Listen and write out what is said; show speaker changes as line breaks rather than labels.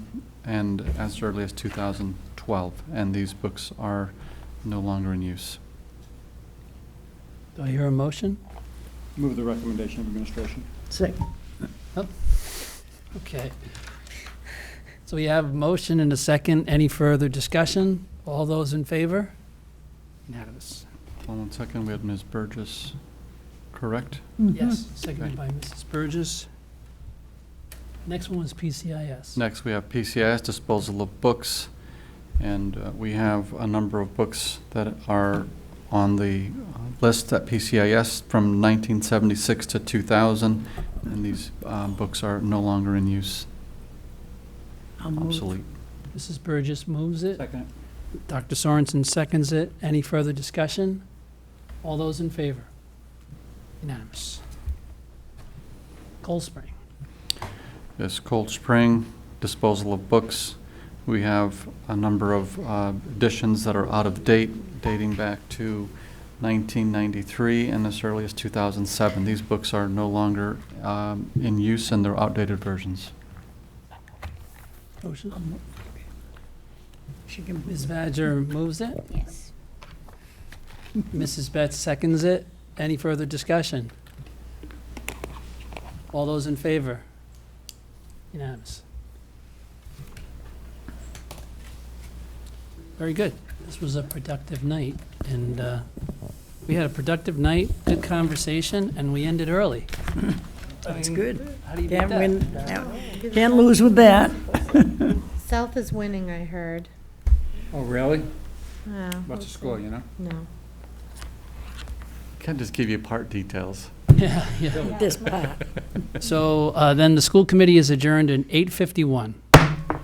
and as early as 2012, and these books are no longer in use.
Do I hear a motion?
Move the recommendation of administration.
Second.
Okay. So we have a motion and a second. Any further discussion? All those in favor? Unanimous.
One second, we had Ms. Burgess, correct?
Yes, seconded by Mrs. Burgess. Next one was PCIS.
Next, we have PCIS disposal of books, and uh, we have a number of books that are on the uh, list at PCIS from 1976 to 2000, and these uh, books are no longer in use,
I'll move.
obsolete.
Mrs. Burgess moves it.
Second.
Dr. Sorensen seconds it. Any further discussion? All those in favor? Unanimous. Cold Spring.
Yes, Cold Spring, disposal of books. We have a number of uh, editions that are out of date, dating back to 1993 and as early as 2007. These books are no longer um, in use and they're outdated versions.
Motion.
I'll move. She can
Ms.
move.
Badger moves it.
Yes.
Mrs. Betts seconds it. Any further discussion? All those in favor? Unanimous. Very good. This was a productive night, and uh, we had a productive night, good conversation, and we ended early.
That's good.
How do you beat
Can't
that?
win, can't lose with that.
South is winning, I heard.
Oh, really?
Yeah,
What's the score, you know?
No.
Can't just give you part details.
Yeah, yeah.
This part.
So uh, then the school committee is adjourned at 8:51.